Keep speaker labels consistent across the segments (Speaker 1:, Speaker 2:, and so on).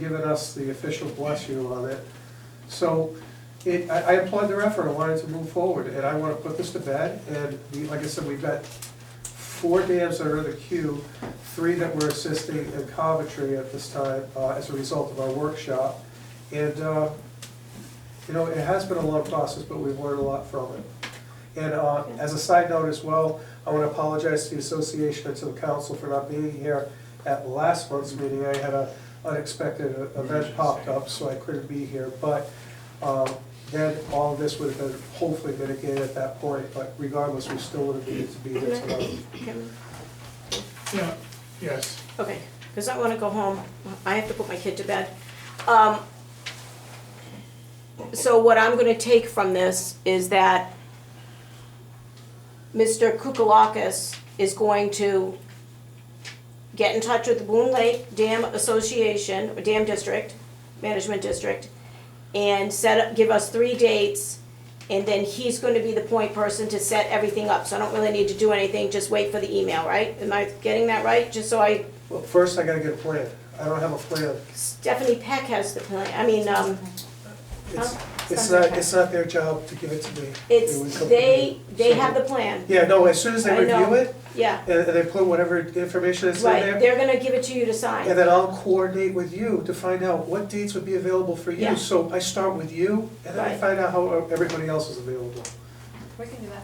Speaker 1: given us the official blessing on it. So it, I I applaud their effort, I wanted to move forward, and I want to put this to bed. And we- like I said, we've got four dams that are in the queue, three that we're assisting in Coventry at this time uh, as a result of our workshop. And, uh, you know, it has been a long process, but we've learned a lot from it. And uh, as a side note as well, I want to apologize to the association and to the council for not being here at last month's meeting. I had a unexpected event popped up, so I couldn't be here. But um, then all of this would have been hopefully mitigated at that point, but regardless, we still would have needed to be here tonight.
Speaker 2: Can-
Speaker 3: Yeah, yes.
Speaker 2: Okay, because I want to go home. I have to put my kid to bed. Um, So what I'm going to take from this is that Mr. Kukalakis is going to get in touch with the Boone Lake Dam Association, or Dam District, Management District, and set up, give us three dates, and then he's going to be the point person to set everything up. So I don't really need to do anything, just wait for the email, right? Am I getting that right? Just so I
Speaker 1: Well, first I gotta get a plan. I don't have a plan.
Speaker 2: Oh, Stephanie Peck has the plan, I mean, um,
Speaker 1: It's,
Speaker 2: Huh?
Speaker 1: it's not, it's not their job to give it to me. It would
Speaker 2: it's,
Speaker 1: come to
Speaker 2: they,
Speaker 1: me.
Speaker 2: they have the plan,
Speaker 1: Yeah, no, as soon as they
Speaker 2: I know.
Speaker 1: review it,
Speaker 2: yeah,
Speaker 1: and and they put whatever information is in
Speaker 2: right,
Speaker 1: there,
Speaker 2: they're gonna give it to you to
Speaker 1: and
Speaker 2: sign.
Speaker 1: then I'll coordinate with you to find out what dates would be available for
Speaker 2: Yeah.
Speaker 1: you. So I start with you, and then I
Speaker 2: Right.
Speaker 1: find out how everybody else is available.
Speaker 4: We can do that.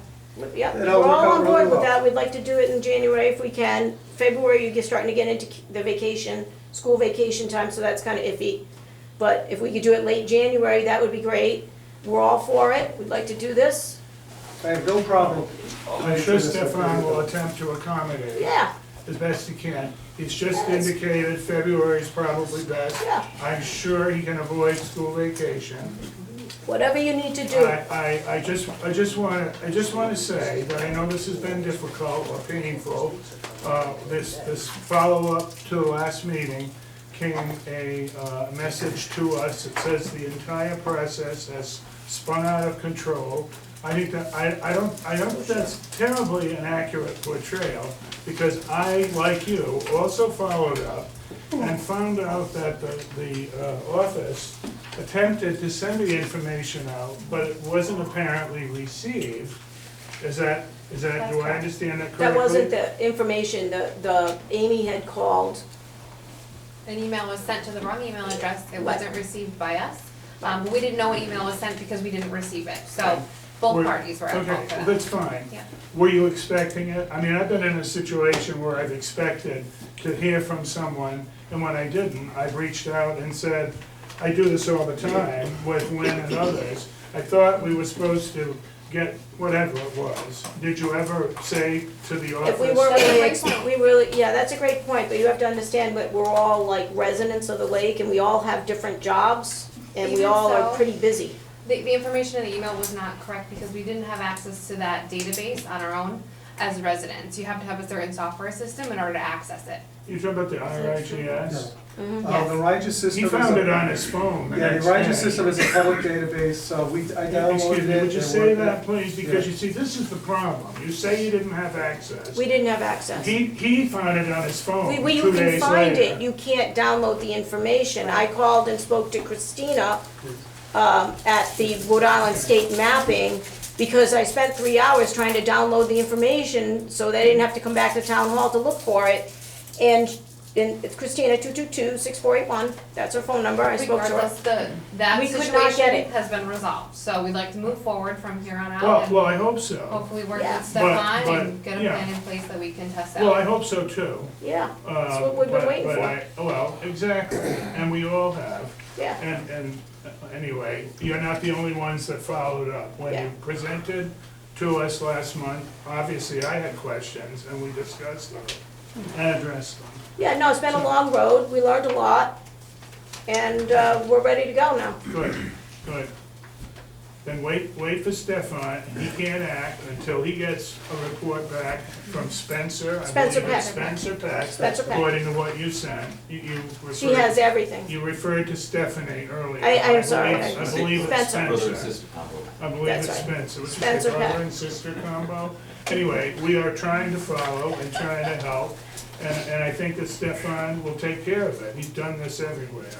Speaker 2: Yeah,
Speaker 1: It'll
Speaker 2: we're
Speaker 1: work
Speaker 2: all
Speaker 1: out
Speaker 2: on
Speaker 1: really
Speaker 2: board with
Speaker 1: well.
Speaker 2: that, we'd like to do it in January if we can, February, you're starting to get into the vacation, school vacation time, so that's kinda iffy. But if we could do it late January, that would be great, we're all for it, we'd like to do this,
Speaker 1: I have no problem.
Speaker 3: I'm sure Stefan will attempt to accommodate
Speaker 2: yeah,
Speaker 3: as best he can. He's just
Speaker 2: Yes.
Speaker 3: indicated February is probably best.
Speaker 2: Yeah.
Speaker 3: I'm sure he can avoid school vacation.
Speaker 2: whatever you need to do,
Speaker 3: I, I, I just, I just wanna, I just wanna say that I know this has been difficult or painful. Uh, this, this follow-up to the last meeting came a, uh, message to us that says the entire process has spun out of control. I think that, I, I don't, I don't think that's terribly inaccurate portrayal, because I, like you, also followed up and found out that the, the uh, office attempted to send the information out, but it wasn't apparently received. Is that, is that, do I understand that correctly?
Speaker 2: that wasn't the information, the, the, Amy had called,
Speaker 4: An email was sent to the wrong email address, it wasn't received by us. Um, we didn't know what email was sent because we didn't receive it, so both
Speaker 3: Were-
Speaker 4: parties were at fault
Speaker 3: Okay,
Speaker 4: for that.
Speaker 3: that's fine.
Speaker 4: Yeah.
Speaker 3: Were you expecting it? I mean, I've been in a situation where I've expected to hear from someone, and when I didn't, I've reached out and said, I do this all the time with Lynn and others. I thought we were supposed to get whatever it was. Did you ever say to the office?
Speaker 2: If we were really,
Speaker 4: That's a great
Speaker 2: ex- we really, yeah, that's a great point, but you have to understand that we're all like residents of the lake and we all have different jobs and we
Speaker 4: Even
Speaker 2: all are
Speaker 4: so-
Speaker 2: pretty busy.
Speaker 4: The, the information in the email was not correct because we didn't have access to that database on our own as residents. You have to have a certain software system in order to access it.
Speaker 3: You're talking about the RIGS?
Speaker 2: Mm-hmm.
Speaker 1: Uh, the Rigid system
Speaker 3: He
Speaker 1: is a-
Speaker 3: found it on his phone the
Speaker 1: Yeah,
Speaker 3: next
Speaker 1: the Rigid
Speaker 3: day.
Speaker 1: system is a public database, so we, I downloaded it.
Speaker 3: Excuse me, would you
Speaker 1: and
Speaker 3: say
Speaker 1: worked it.
Speaker 3: that, please? Because you see, this is the problem. You say you didn't have access.
Speaker 2: We didn't have access.
Speaker 3: He, he found it on his phone
Speaker 2: We,
Speaker 3: two days
Speaker 2: we, you
Speaker 3: later.
Speaker 2: can find it, you can't download the information. I called and spoke to Christina, um, at the Rhode Island State Mapping because I spent three hours trying to download the information so they didn't have to come back to town hall to look for it. And, and it's Christina, two-two-two, six-four-eight-one, that's her phone number, I spoke to her.
Speaker 4: Regardless, the, that
Speaker 2: We could not get
Speaker 4: situation
Speaker 2: it.
Speaker 4: has been resolved, so we'd like to move forward from here on out
Speaker 3: Well,
Speaker 4: and
Speaker 3: well, I hope so.
Speaker 4: hopefully work
Speaker 2: Yeah.
Speaker 4: with
Speaker 2: But-
Speaker 4: Stefan and
Speaker 3: but,
Speaker 4: get a
Speaker 3: yeah.
Speaker 4: plan in place that we can test out.
Speaker 3: Well, I hope so too.
Speaker 2: Yeah,
Speaker 3: Uh,
Speaker 2: That's what we've been
Speaker 3: but-
Speaker 2: waiting
Speaker 3: but
Speaker 2: for.
Speaker 3: I- Well, exactly, and we all have.
Speaker 2: yeah.
Speaker 3: And, and uh, anyway, you're not the only ones that followed up. When
Speaker 2: Yeah.
Speaker 3: you presented to us last month, obviously I had questions and we discussed them
Speaker 2: Hmm.
Speaker 3: and addressed them.
Speaker 2: Yeah, no, it's been a long road, we learned a lot, and uh, we're ready to go now.
Speaker 3: Good, good. Then wait, wait for Stefan, he can't act until he gets a report back from Spencer. I
Speaker 2: Spencer
Speaker 3: believe it's
Speaker 2: Peck.
Speaker 3: Spencer Peck.
Speaker 2: Spencer Peck.
Speaker 3: According to what you sent, you, you referred.
Speaker 2: She has everything.
Speaker 3: You referred to Stephanie earlier.
Speaker 2: I- I'm
Speaker 3: believe-
Speaker 2: sorry,
Speaker 3: I
Speaker 2: I-
Speaker 3: believe it's
Speaker 2: Spencer.
Speaker 5: Brother and
Speaker 3: Spencer.
Speaker 5: sister combo.
Speaker 3: I believe
Speaker 2: That's
Speaker 3: it's
Speaker 2: right.
Speaker 3: Spencer, which is
Speaker 2: Spencer
Speaker 3: the
Speaker 2: Peck.
Speaker 3: brother and sister combo. Anyway, we are trying to follow and trying to help, and, and I think that Stefan will take care of it. He's done this everywhere.